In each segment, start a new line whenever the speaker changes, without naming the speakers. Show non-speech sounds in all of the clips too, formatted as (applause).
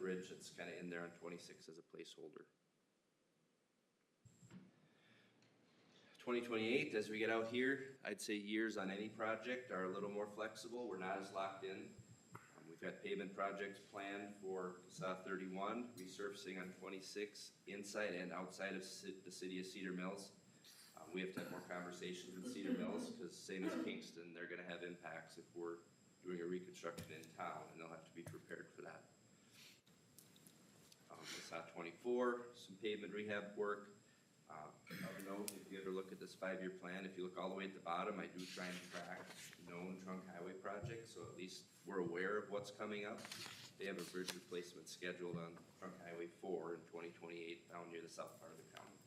bridge, it's kind of in there on twenty-six as a placeholder. Twenty twenty-eight, as we get out here, I'd say years on any project are a little more flexible, we're not as locked in. Um, We've got pavement projects planned for Casa thirty-one, resurfacing on twenty-six, inside and outside of ci- the city of Cedar Mills. Um, we have to have more conversations with Cedar Mills, cause same as Kingston, they're gonna have impacts if we're doing a reconstruction in town, and they'll have to be prepared for that. Um, Passat twenty-four, some pavement rehab work. Um, Of note, if you ever look at this five-year plan, if you look all the way at the bottom, I do try and track known trunk highway projects, so at least we're aware of what's coming up. They have a bridge replacement scheduled on trunk highway four in twenty twenty-eight down near the south part of the county.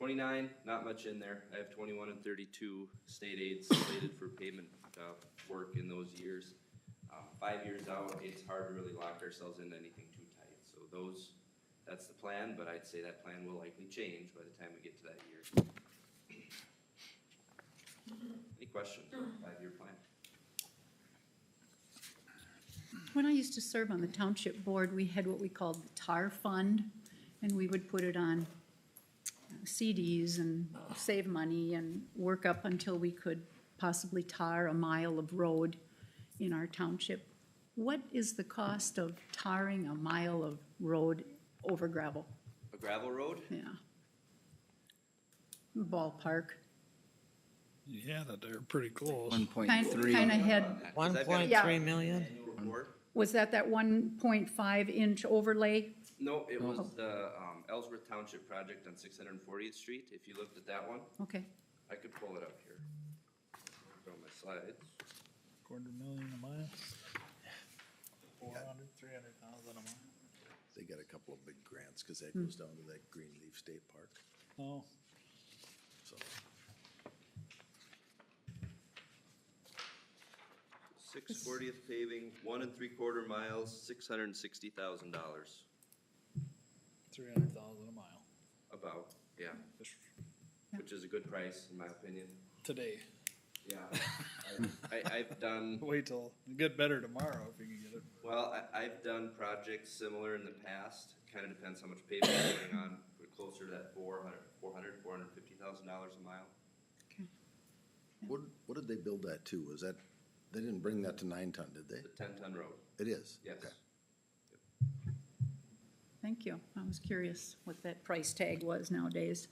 Twenty-nine, not much in there. I have twenty-one and thirty-two state aids slated for pavement, uh, work in those years. Um, five years out, it's hard to really lock ourselves into anything too tight, so those, that's the plan, but I'd say that plan will likely change by the time we get to that year. Any questions on the five-year plan?
When I used to serve on the township board, we had what we called the TAR fund, and we would put it on CDs and save money and work up until we could possibly tar a mile of road in our township. What is the cost of tarring a mile of road over gravel?
A gravel road?
Yeah. Ballpark.
Yeah, that they're pretty close.
One point
Kind,
three.
kind of had,
Because I've got an
1.3
million?
annual report.
was that that one point five inch overlay?
No, it was the, um, Ellsworth Township project on six hundred and fortieth street, if you looked at that one.
Okay.
I could pull it up here. Go on my slides.
Quarter million a mile. Four hundred, three hundred thousand a mile.
They got a couple of big grants, cause that goes down to that Greenleaf State Park,
Oh,
so.
Six fortieth paving, one and three quarter miles, six hundred and sixty thousand dollars,
three hundred thousand a mile.
about, yeah,
Just
which is a good price in my opinion.
Today.
Yeah. (laughs) I- I, I've done,
Wait till, get better tomorrow if you can get it.
well, I, I've done projects similar in the past, kinda depends how much paving is going on, we're closer to that four hundred, four hundred, four hundred and fifty thousand dollars a mile.
What, what did they build that to? Was that, they didn't bring that to nine ton, did
The
they?
ten ton road,
It is?
yes.
Okay.
Thank you. I was curious what that price tag was nowadays.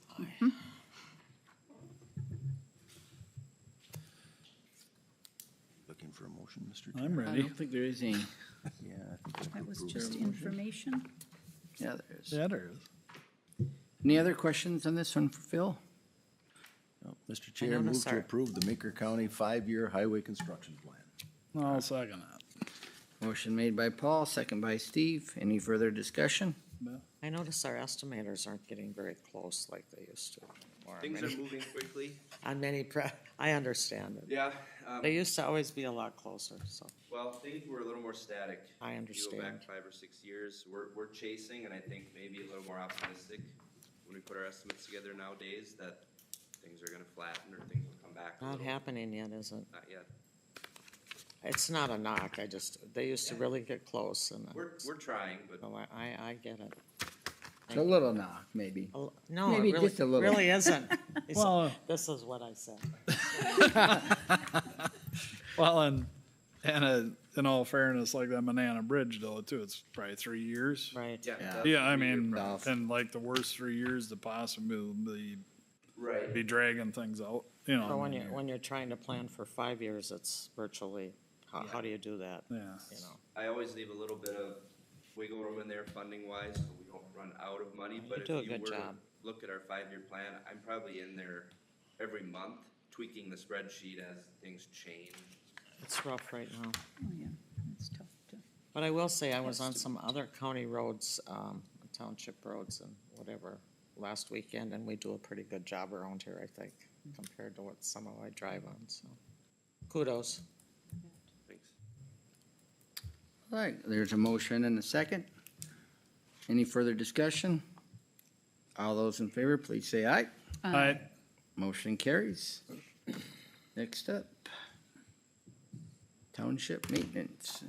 Looking for a motion, Mr. Chair?
I'm
I
ready.
don't think there is any.
Yeah. I think
That was
approved.
just information.
Yeah, there is.
Yeah, there is.
Any other questions on this one for Phil?
No, Mr. Chair,
know, no,
move to
sir.
approve the Meeker County five-year highway construction plan.
I'll second that.
Motion made by Paul, second by Steve. Any further discussion?
I notice our estimators aren't getting very close like they used to. or on
Things are
many-
moving quickly,
On many, pro- (laughs) I understand it.
yeah, um,
They used to always be a lot closer, so.
Well, things were a little more static.
I
You go back
understand.
five or six years, we're, we're chasing and I think maybe a little more optimistic when we put our estimates together nowadays that things are gonna flatten or things will come back a
Not
little.
happening yet, is it?
Not yet.
It's not a knock, I just, they used to
Yeah.
really get close and.
We're,
it's-
we're trying, but
No, I, I, I get it.
It's a little knock, maybe.
A l- No,
Maybe
it really,
just a little. uh, (laughs)
really isn't. It's-
Well-
This is what I said.
Well, and, and uh, in all fairness, like that banana bridge though, too, it's probably three years.
Right.
yeah.
Yeah.
that's
Yeah, I
gonna be your
mean, uh,
problem.
Tough.
and like the worst three years to possibly be
Right,
dragging things out, you know.
But when
I
you're,
mean,
when you're trying to plan for five years, it's virtually, how, how do you do that?
Yeah.
You know,
I always leave a little bit of wiggle room in there funding wise, so we don't run out of money, but
You
if
do a
you
good
were to
job.
look at our five-year plan, I'm probably in there every month tweaking the spreadsheet as things change.
it's rough right now.
Oh, yeah, that's tough to.
But I will say, I was on some other county roads, um, township roads and whatever, last weekend, and we do a pretty good job around here, I think, compared to what some of I drive on, so. Kudos.
Thanks.
All right, there's a motion and a second. Any further discussion? All those in favor, please say aye.
All right,
Motion carries. Next up. Township maintenance,